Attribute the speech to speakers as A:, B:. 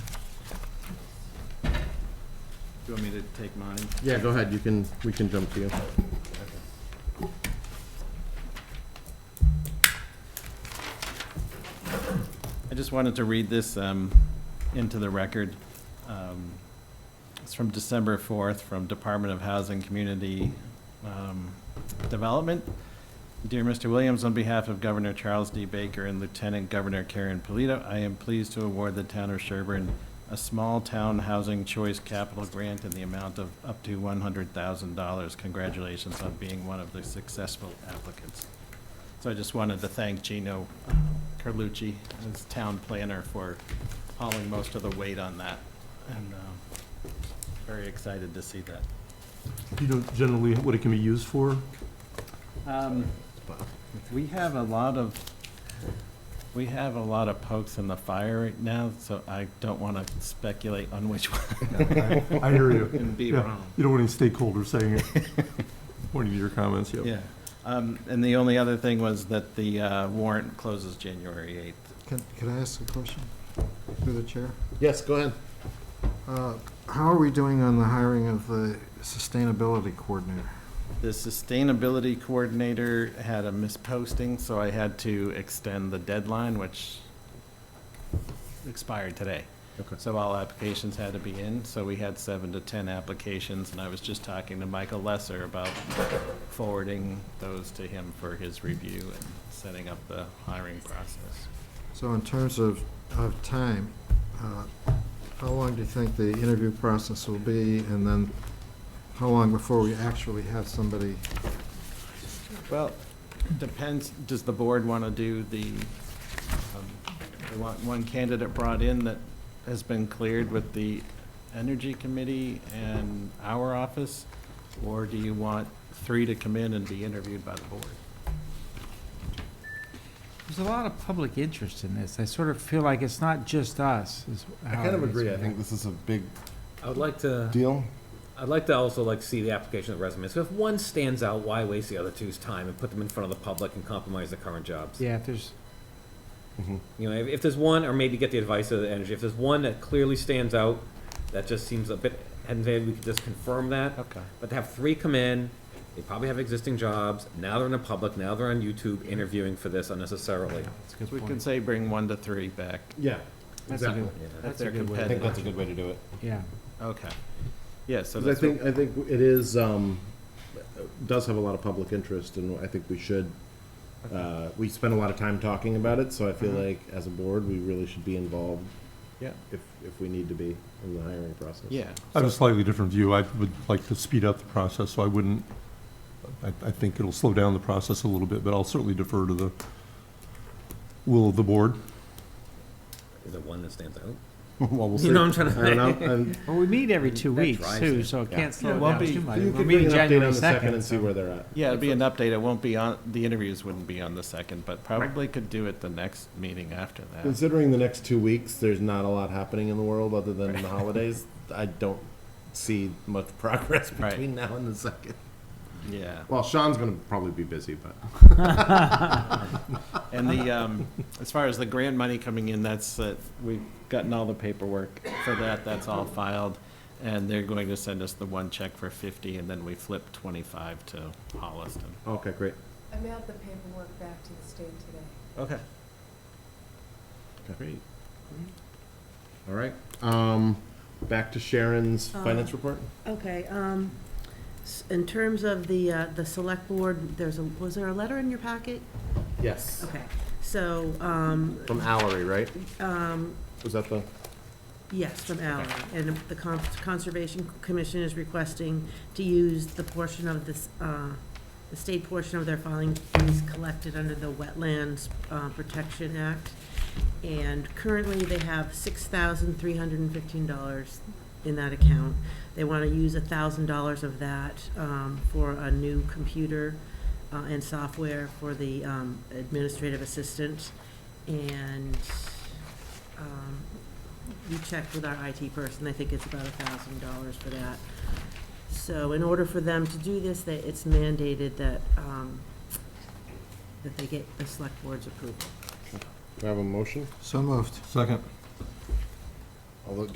A: you want me to take mine?
B: Yeah, go ahead, you can, we can jump to you.
A: I just wanted to read this um, into the record. Um, It's from December 4th, from Department of Housing Community um, Development. Dear Mr. Williams, on behalf of Governor Charles D. Baker and Lieutenant Governor Karen Polito, I am pleased to award the town of Sherburne a small-town housing choice capital grant in the amount of up to $100,000. Congratulations on being one of the successful applicants. So I just wanted to thank Gino Carlucci, as town planner, for hauling most of the weight on that. And um, very excited to see that.
C: You know generally what it can be used for?
A: Um, We have a lot of, we have a lot of pokes in the fire right now, so I don't want to speculate on which one.
C: I hear you.
A: And be
C: Yeah.
A: wrong.
C: You don't want any stakeholders saying it. Pointing to your comments, yep.
A: Yeah. Um, And the only other thing was that the uh, warrant closes January 8th.
D: Can, can I ask a question through the chair?
B: Yes, go ahead.
D: Uh, How are we doing on the hiring of the sustainability coordinator?
A: The sustainability coordinator had a misposting, so I had to extend the deadline, which expired today.
B: Okay.
A: So all applications had to be in, so we had seven to 10 applications, and I was just talking to Michael Lesser about forwarding those to him for his review and setting up the hiring process.
D: So in terms of, of time, uh, how long do you think the interview process will be? And then how long before we actually have somebody?
A: Well, depends, does the board want to do the, um, they want one candidate brought in that has been cleared with the Energy Committee and our office? Or do you want three to come in and be interviewed by the board?
E: There's a lot of public interest in this. I sort of feel like it's not just us. is
B: I
E: how
B: kind of
E: it is
B: agree, I
E: right
B: think
E: now.
B: this is a big
F: I would like to,
B: deal.
F: I'd like to also like see the application of resumes. So if one stands out, why waste the other two's time and put them in front of the public and compromise the current jobs?
E: Yeah, if there's,
F: You know, if, if there's one, or maybe get the advice of the energy, if there's one that clearly stands out, that just seems a bit, and maybe we could just confirm that.
A: Okay.
F: But to have three come in, they probably have existing jobs, now they're in the public, now they're on YouTube interviewing for this unnecessarily.
E: that's a good
A: We can
E: point.
A: say bring one to three back.
B: Yeah,
E: That's a good,
F: Yeah.
A: If
E: That's
A: they're
E: a good way.
B: I think
A: competitive.
B: that's a good way to do it.
E: yeah.
A: Okay. Yeah, so
B: Because I
A: that's, what-
B: think, I think it is, um, does have a lot of public interest, and I think we should, uh, we spend a lot of time talking about it, so I feel like, as a board, we really should be involved
A: yeah,
B: if, if we need to be in the hiring process.
A: yeah.
C: I have a slightly different view. I would like to speed up the process, so I wouldn't, I, I think it'll slow down the process a little bit, but I'll certainly defer to the will of the board.
F: Is there one that stands out?
B: Well, we'll see.
F: You know what I'm trying to
B: I don't know, and
E: Well, we meet every two
F: That
E: weeks
F: drives
E: too,
F: it.
E: so it
B: Yeah.
E: can't slow
A: Yeah,
E: it
A: it won't
E: down
A: be-
E: too much.
B: you
E: We're
B: can bring
E: meeting
B: an update on
E: January
B: the second and
E: second.
B: see where they're at.
A: Yeah, it'll be an update. It won't be on, the interviews wouldn't be on the second, but probably could do it the next meeting after that.
B: Considering the next two weeks, there's not a lot happening in the world other than the holidays. I don't see much progress
A: Right.
B: between now and the second.
A: Yeah.
B: Well, Sean's gonna probably be busy, but
A: And the, um, as far as the grant money coming in, that's, uh, we've gotten all the paperwork for that, that's all filed. And they're going to send us the one check for fifty, and then we flip twenty-five to Holliston.
B: okay, great.
G: I mailed the paperwork back to the state today.
A: Okay.
B: Great. All right. Um, back to Sharon's
H: Um,
B: finance report.
H: Okay, um, s- in terms of the, uh, the select board, there's a, was there a letter in your packet?
B: Yes.
H: Okay, so, um,
B: From Allery, right?
H: um,
B: Was that the?
H: yes, from Allen, and the Con- Conservation Commission is requesting to use the portion of this, uh, the state portion of their filing fees collected under the Wetlands uh, Protection Act. And currently, they have six thousand three hundred and fifteen dollars in that account. They want to use a thousand dollars of that um, for a new computer uh, and software for the um, administrative assistant. And um, we checked with our IT person, I think it's about a thousand dollars for that. So in order for them to do this, that it's mandated that, um, that they get the select board's approval.
B: Do I have a motion?
D: So moved.
C: Second.